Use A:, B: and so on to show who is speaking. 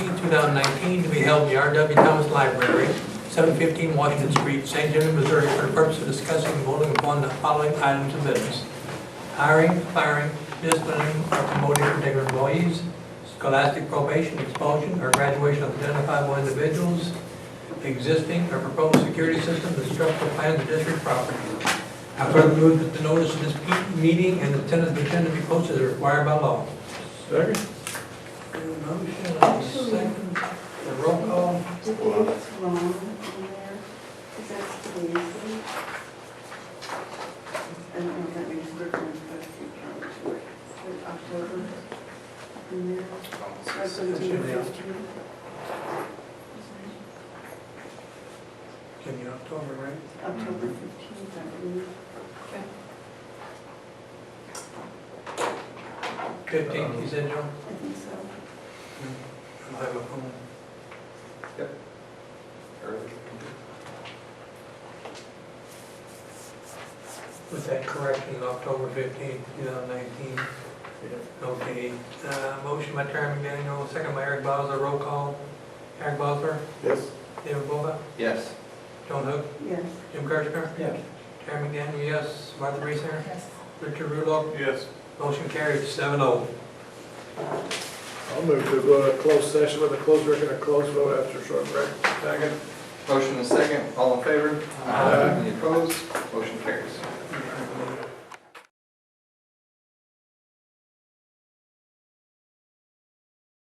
A: 2019, to be held in the R.W. Thomas Library, 715 Washington Street, St. Genevieve, Missouri, for the purpose of discussing and voting upon the following items of business. Hiring, firing, disciplining, or promoting particular employees, scholastic probation, expulsion, or graduation of identifiable individuals, existing or proposed security systems and structural plans of district property. I further move that the notice of this pe- meeting and attendance agenda be posted as required by law.
B: Second?
A: Motion, I'll second. The roll call.
C: Did you know what's wrong in there? Is that lazy? I don't know if that means we're going to put a few times for it. Put October in there. Resolution fifteen.
A: Can you October, right?
C: October fifteenth, I believe.
A: 15th, you said, Joe?
C: I think so.
A: I'll have a phone. With that correction, October 15th, 2019. Okay, uh, motion by Chairman Daniel, second by Eric Bowser, roll call. Eric Bowser,
B: Yes.
A: David Bova,
D: Yes.
A: John Hook,
C: Yes.
A: Jim Kerschner,
B: Yes.
A: Chairman Daniel, yes, Martha Reeser,
C: Yes.
A: Richard Rudow,
B: Yes.
A: motion carried, seven oh.
B: I'll move to go to a closed session with a closed record, a closed vote after a short break. Second?
D: Motion and second, all in favor?
B: Aye.
D: Any opposed? Motion carries.